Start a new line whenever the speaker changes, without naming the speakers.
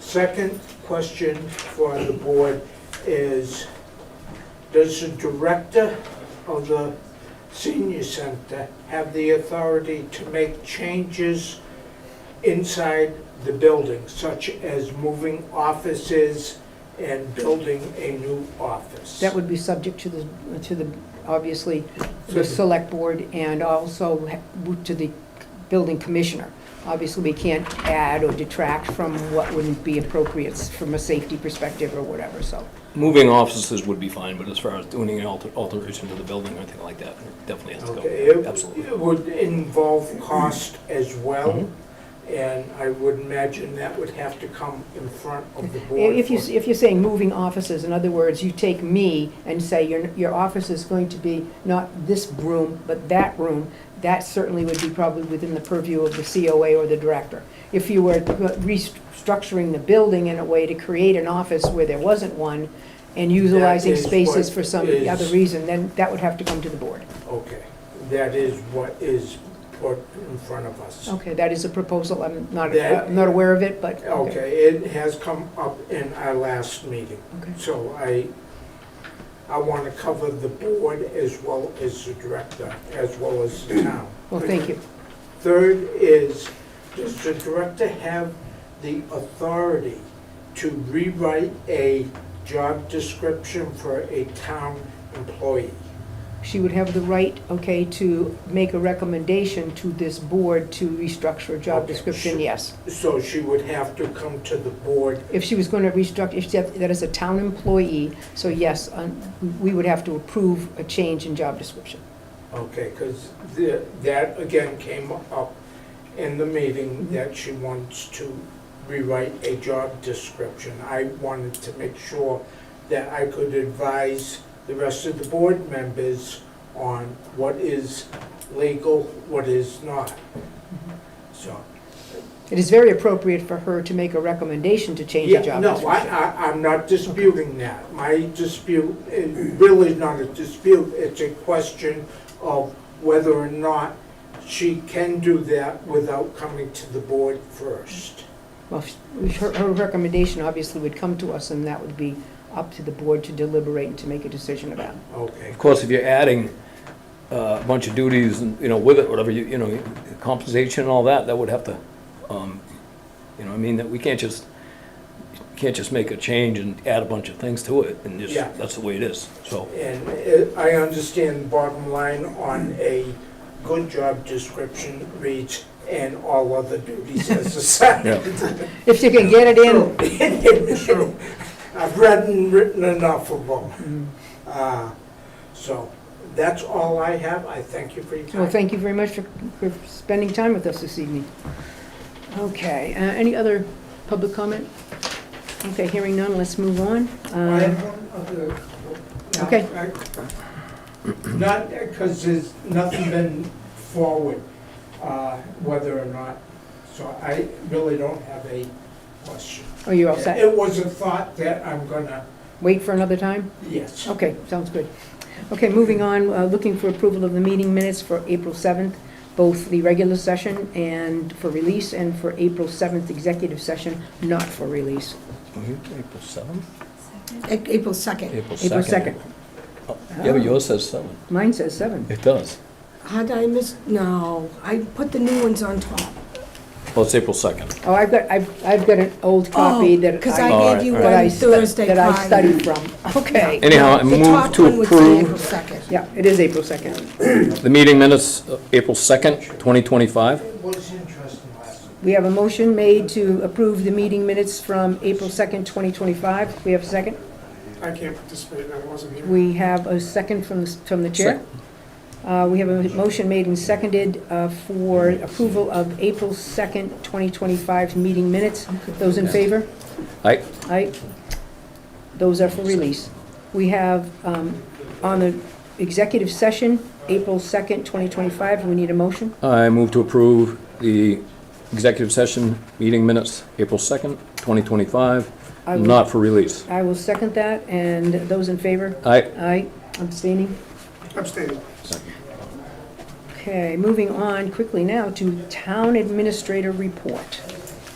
Second question for the board is, does the director of the senior center have the authority to make changes inside the building, such as moving offices and building a new office?
That would be subject to the, to the, obviously, the select board and also to the building commissioner. Obviously, we can't add or detract from what wouldn't be appropriate from a safety perspective or whatever, so.
Moving offices would be fine, but as far as doing an alter- alteration to the building or anything like that, it definitely has to
Okay,
go,
it-
absolutely.
It would involve cost as well,
Mm-hmm.
and I would imagine that would have to come in front of the board.
If you,
for-
if you're saying moving offices, in other words, you take me and say your, your office is going to be not this room, but that room, that certainly would be probably within the purview of the COA or the director. If you were restructuring the building in a way to create an office where there wasn't one and utilizing
That is
spaces
what
for some
is-
other reason, then that would have to come to the board.
Okay, that is what is put in front of us.
Okay, that is a proposal, I'm not,
That-
I'm not aware of it, but.
Okay, it has come up in our last meeting,
Okay.
so I, I want to cover the board as well as the director, as well as the town.
Well, thank you.
Third is, does the director have the authority to rewrite a job description for a town employee?
she would have the right, okay, to make a recommendation to this board to restructure a job
Okay,
description,
sure.
yes.
So she would have to come to the board.
If she was going to restructure, if that that is a town employee, so yes, um, we would have to approve a change in job description.
Okay, because that again came up in the meeting that she wants to rewrite a job description. I wanted to make sure that I could advise the rest of the board members on what is legal, what is not. So,
It is very appropriate for her to make a recommendation to change a
yeah,
job
no, I,
description.
I, I'm not disputing that. My dispute, it really is not a dispute, it's a question of whether or not she can do that without coming to the board first.
Well, if- her, her recommendation obviously would come to us, and that would be up to the board to deliberate and to make a decision about.
Okay,
Of course, if you're adding uh, a bunch of duties and, you know, with it, whatever, you you know, compensation and all that, that would have to, um, you know, what I mean, that we can't just, can't just make a change and add a bunch of things to it, and just,
Yeah.
that's the way it is, so.
and uh, I understand bottom line on a good job description reads, and all other duties as assigned.
If she can get it in,
True. I've read and written enough of them. Uh, So that's all I have. I thank you for your time.
Well, Oh, thank you very much for, for spending time with us this evening. Okay, uh, any other public comment? Okay, hearing none, let's move on.
I
Um,
have one other. no,
Okay.
I- Not, because there's nothing been forward, uh, whether or not, so I really don't have a question.
Are you all set?
It was a thought that I'm gonna,
Wait for another time?
yes.
Okay, sounds good. Okay, moving on, uh, looking for approval of the meeting minutes for April 7th, both the regular session and for release, and for April 7th executive session, not for release.
April seventh?
A- E, April 2nd.
April
April
second. Oh, Yeah, but yours says seven.
Mine says 7.
It does.
How did I miss, no, I put the new ones on top.
Well, it's April second.
Oh, I've got, I've, I've got an old copy that I.
Because
All
Oh, I
right,
gave you
all
that I
one
stu-
Thursday prior.
That I studied from, okay.
Anyhow, I
The
move
top
to
one was the April
approve
2nd.
Yeah, it is April 2nd.
the meeting minutes, uh, April second, twenty twenty-five.
It was interesting last night.
We have a motion made to approve the meeting minutes from April 2nd, 2025. We have a second.
I can't participate, I wasn't here.
We have a second from, the- from the chair. Uh, We have a motion made and seconded uh, for approval of April 2nd, 2025 meeting minutes. Those in favor?
Aye.
Aye. Those are for release. We have, um, on the executive session, April 2nd, 2025, we need a motion.
I move to approve the executive session meeting minutes, April second, twenty twenty-five,
I will-
not for release.
I will second that, and those in favor?
Aye.
Aye, abstaining.
Abstaining.
Okay, moving on quickly now to town administrator report.